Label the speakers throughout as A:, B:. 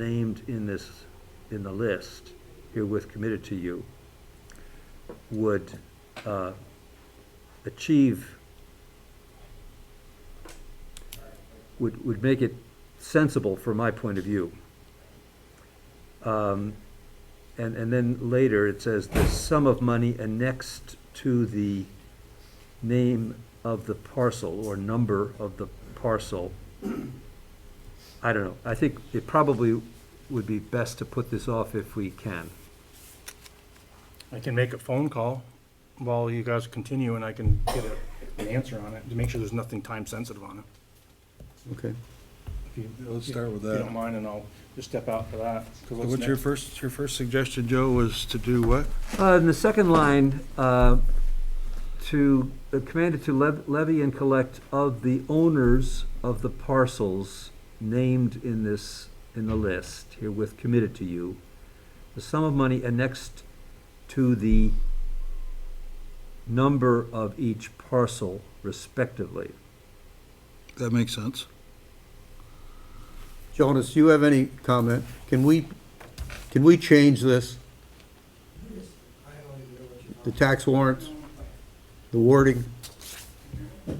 A: named in this, in the list herewith committed to you would uh, achieve, would, would make it sensible from my point of view. Um, And, and then later, it says the sum of money annexed to the name of the parcel or number of the parcel. I don't know. I think it probably would be best to put this off if we can.
B: I can make a phone call while you guys continue and I can get a- an answer on it to make sure there's nothing time sensitive on it.
C: Okay.
B: If you-
C: Let's start with
B: If you don't
C: that.
B: mind, and I'll just step out for that. 'cause
C: So
B: what's
C: What's your
B: next?
C: first, your first suggestion, Joe, was to do what?
A: Uh, in the second line, uh, to, uh, commanded to lev- levy and collect of the owners of the parcels named in this, in the list herewith committed to you, the sum of money annexed to the number of each parcel respectively.
C: That makes sense.
D: Jonas, you have any comment? Can we, can we change this? The tax warrants, the wording?
E: I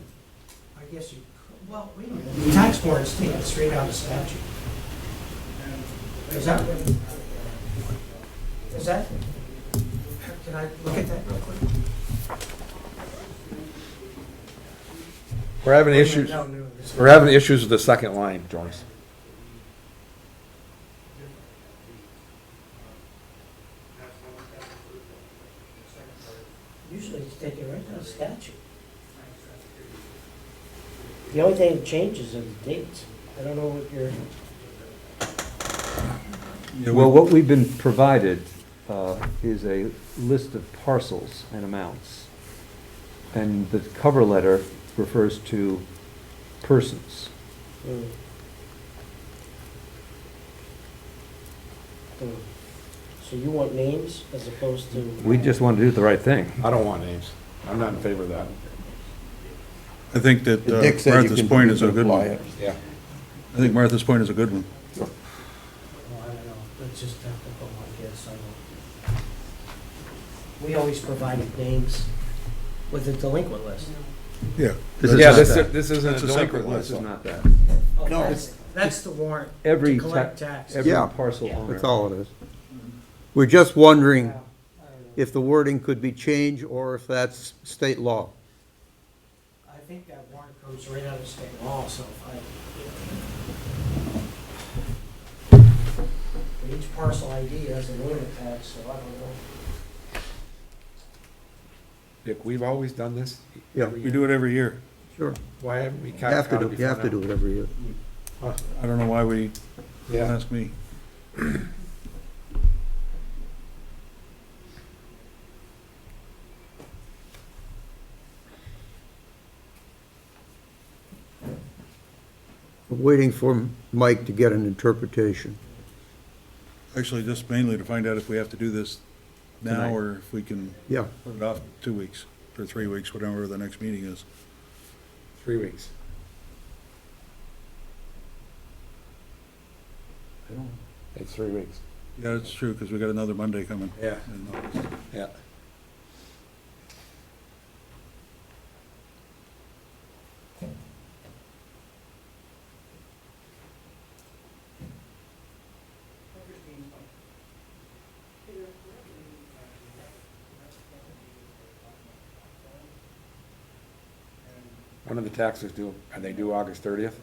E: guess you, could- well, wait a minute, The tax warrants taken straight out of statute. Is that, is that, can I look at that real quick?
F: We're having issues,
E: No, no, this-
F: we're having issues with the second line, Jonas.
E: Usually it's taken right out of statute. The only thing that changes are the dates. I don't know what your,
A: Well, what we've been provided uh, is a list of parcels and amounts. And the cover letter refers to persons.
E: Hmm. Hmm. so you want names as opposed to?
A: We just want to do the right thing.
F: I don't want names. I'm not in favor of that.
C: I think that uh,
D: Dick said you
C: Martha's
D: can-
C: point
D: you
C: is a
D: can
C: good
D: apply
C: one.
D: it.
F: Yeah.
C: I think Martha's point is a good one.
E: Well, Oh, I don't know, that's just technical, I guess, I don't. We always provided names with a delinquent list.
C: Yeah.
A: This is
F: Yeah,
A: not
F: this,
A: that.
F: this isn't a
C: That's a separate
F: delinquent
C: one,
F: list.
A: This is not that.
E: Oh,
D: No.
E: that's- That's the warrant, to
A: Every,
E: collect
A: ta-
E: tax.
A: every
D: Yeah.
A: parcel
E: Yeah.
A: owner.
D: That's all it is. We're just wondering
E: Yeah.
D: if the wording could be changed or if that's state law.
E: I think that warrant comes right out of state law, so if I, you know. Each parcel ID has a limit tax, so I don't know.
F: Dick, we've always done this.
D: Yeah.
F: every
C: We
F: year.
C: do it every year.
D: Sure.
F: Why haven't we?
D: You have to do, you have to do it every year.
C: I don't know why we, don't
F: Yeah,
C: ask me.
D: I'm Waiting for Mike to get an interpretation.
C: Actually, just mainly to find out if we have to do this now
A: Tonight.
C: or if we can
D: Yeah,
C: put it off two weeks or three weeks, whatever the next meeting is.
F: three weeks. It's three weeks.
C: Yeah, it's true, because we got another Monday coming. uh,
F: Yeah.
C: in August.
F: Yeah. When are the taxes due? Are they due August thirtieth?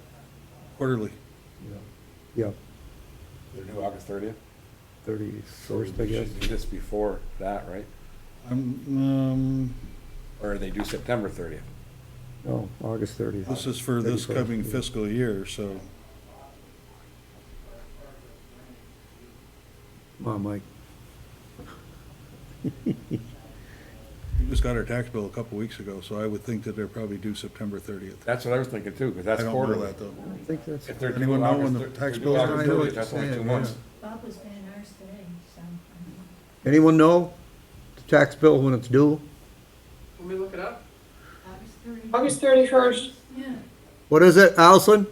C: Quarterly.
D: yeah,
F: They're due August thirtieth?
D: thirty-first, I guess.
F: Should do this before that, right?
C: I'm, um,
F: Or are they due September thirtieth?
D: No, August thirtieth.
C: This is for this
D: 31st,
C: coming
D: yeah.
C: fiscal year, so
D: Come on, Mike.
C: we just got our tax bill a couple weeks ago, so I would think that they're probably due September thirtieth.
F: That's what I was thinking too, because that's
C: I don't know
F: quarterly.
C: that, though.
D: I think that's.
F: If they're due
C: Anyone know when
F: August,
C: the
F: thir- if
C: tax
F: they're due
C: bills are?
F: August
C: I know what
F: thirtieth,
C: you're
F: that's only two
D: saying,
F: months.
G: Bob was paying ours today, so. I don't know.
D: Anyone know the tax bill when it's due?
G: August 30.
H: August 31st,
G: Yeah.
D: What is it, Allison?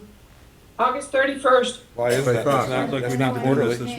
I: August 31st.
F: Why is
J: By
F: that?
J: far.
F: That's not,
H: Sounds like
F: that's
H: we
F: not
H: need to do
F: quarterly.
C: this this